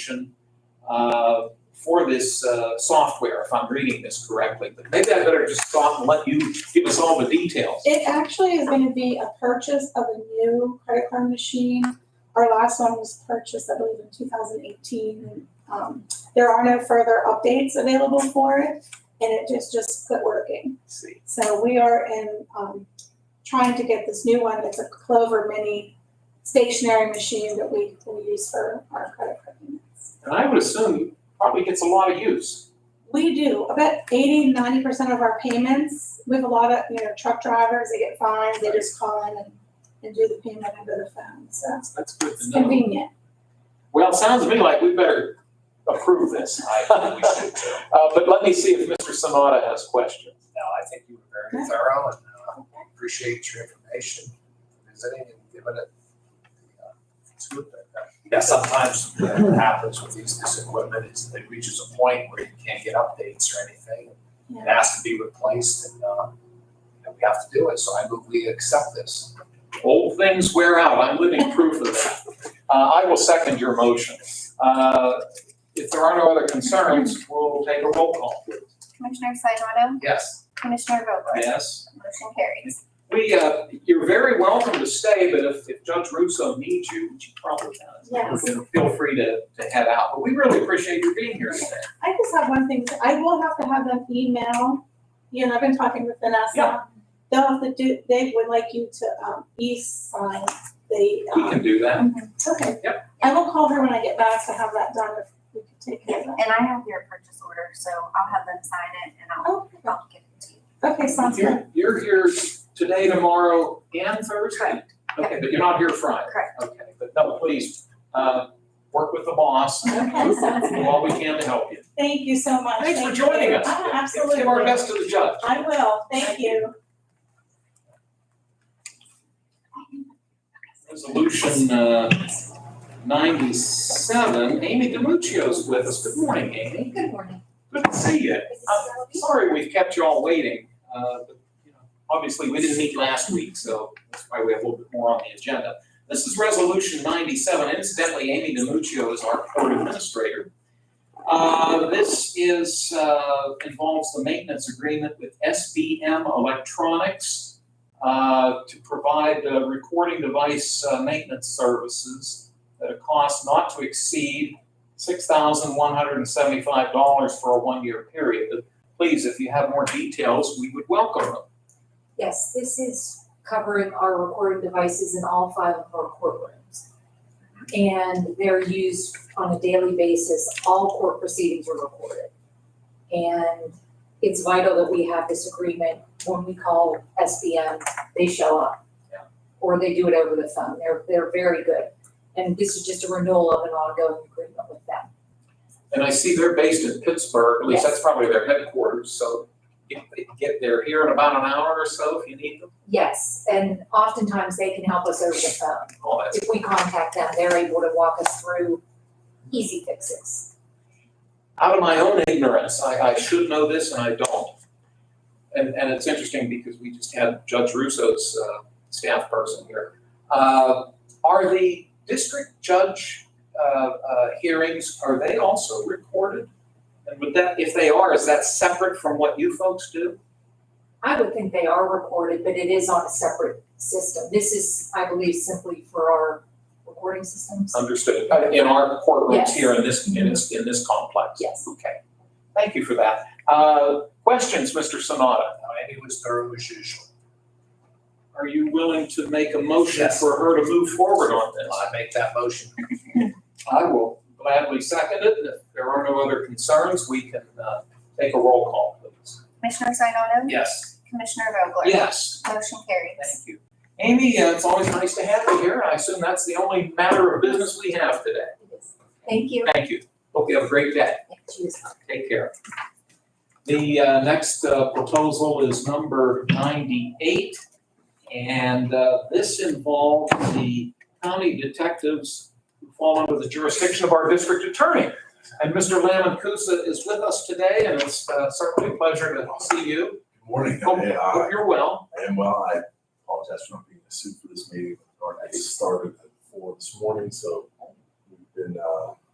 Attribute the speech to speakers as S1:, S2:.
S1: solution, uh, for this uh, software, if I'm reading this correctly. But maybe I better just stop and let you give us all the details.
S2: It actually is gonna be a purchase of a new credit card machine. Our last one was purchased, I believe, in two thousand eighteen. Um, there are no further updates available for it, and it just, just quit working.
S1: Let's see.
S2: So we are in, um, trying to get this new one, it's a Clover Mini stationary machine that we will use for our credit card payments.
S1: And I would assume it probably gets a lot of use.
S2: We do, about 80, 90 percent of our payments, we have a lot of, you know, truck drivers, they get fined, they just call in and, and do the payment over the phone, so
S1: That's, that's good
S2: it's
S1: to know.
S2: convenient.
S1: Well, it sounds to me like we better approve this.
S3: I think we should too.
S1: Uh, but let me see if Mr. Sanada has questions.
S3: No, I think you were very thorough and uh, appreciate your information, visiting and giving it the uh, scoop. that, uh, Yeah, sometimes what happens with these, this equipment is that it reaches a point where you can't get updates or anything. It
S2: Yeah.
S3: has to be replaced and, uh, and we have to do it, so I move we accept this.
S1: Old things wear out. I'm living proof of that. Uh, I will second your motion. Uh, if there are no other concerns, we'll take a roll call.
S4: Commissioner Sinata,
S3: Yes.
S4: Um, Commissioner Vogler?
S1: Yes?
S4: Motion carries.
S1: We, uh, you're very welcome to stay, but if, if Judge Russo needs you, which he probably does,
S2: Yes,
S1: then feel free to, to head out. But we really appreciate you being here today.
S2: I just have one thing, I will have to have them email, you know, I've been talking with
S1: Yeah.
S2: Vanessa. They'll have to do, they would like you to, um, e-sign the,
S1: We
S2: um,
S1: can do that.
S2: okay. I will call her when I get back to have that done if we could take care of that.
S4: And I have your purchase order, so I'll have them sign it and I'll,
S2: Oh,
S4: I'll give it to you.
S2: okay, sounds good.
S1: You're, you're here today, tomorrow, and Thursday? Okay, but you're not here Friday?
S4: Correct.
S1: Okay, but no, please, uh, work with the boss,
S2: Okay, sounds
S1: do
S2: good.
S1: all we can to help you.
S2: Thank you so much.
S1: Thanks for
S2: Thank
S1: joining
S2: you.
S1: us.
S2: Ah,
S1: Give our
S2: Absolutely.
S1: best to the judge.
S2: I will, thank you.
S1: Resolution, uh, ninety-seven, Amy DiMuccio's with us. Good morning, Amy.
S5: Good morning.
S1: Good to see you. Uh, Sorry we've kept you all waiting, uh, but, you know, obviously, we didn't meet last week, so that's why we have a little bit more on the agenda. This is Resolution ninety-seven, incidentally, Amy DiMuccio is our court administrator. Uh, this is, uh, involves the maintenance agreement with SBM Electronics, uh, to provide, uh, recording device, uh, maintenance services at a cost not to exceed six thousand one hundred and seventy-five dollars for a one-year period. The please, if you have more details, we would welcome them.
S5: Yes, this is covering our recording devices in all five of our courtrooms. And they're used on a daily basis, all court proceedings are recorded. And it's vital that we have this agreement, when we call SBM, they show up.
S1: Yeah.
S5: Or they do it over the phone, they're, they're very good. And this is just a renewal of an ongoing agreement with them.
S1: And I see they're based in Pittsburgh, at least
S5: Yes.
S1: that's probably their headquarters, so if they can get there here in about an hour or so if you need them.
S5: Yes, and oftentimes they can help us over the phone.
S1: All that's,
S5: if we contact them, they're able to walk us through easy fixes.
S1: out of my own ignorance, I, I should know this and I don't. And, and it's interesting because we just had Judge Russo's, uh, staff person here. Uh, are the district judge, uh, uh, hearings, are they also recorded? And would that, if they are, is that separate from what you folks do?
S5: I would think they are recorded, but it is on a separate system. This is, I believe, simply for our recording systems.
S1: Understood. Uh, In our courtrooms
S5: Yes.
S1: here in this, in this, in this complex?
S5: Yes.
S1: Okay. Thank you for that. Uh, Questions, Mr. Sanada?
S3: Now, Amy was thorough as usual.
S1: Are you willing to make a motion
S3: Yes.
S1: for her to move forward on this?
S3: I make that motion.
S1: I will gladly second it. If there are no other concerns, we can uh, take a roll call, please.
S4: Commissioner Sinata,
S1: Yes.
S4: Commissioner Vogler?
S1: Yes.
S4: Motion carries.
S1: Thank you. Amy, uh, it's always nice to have you here. I assume that's the only matter of business we have today.
S5: Thank you.
S1: Thank you. Hope you have a great day.
S5: Cheers.
S1: Take care. The uh, next uh, proposal is number 98, and uh, this involves the county detectives who fall under the jurisdiction of our district attorney. And Mr. Lamon Kusa is with us today, and it's uh, certainly a pleasure to see you.
S6: Good morning,
S1: Hope
S6: Hey,
S1: hope
S6: I
S1: you're well.
S6: am well. I apologize for not being in the suit for this meeting. Our next started at four this morning, so we've been, uh,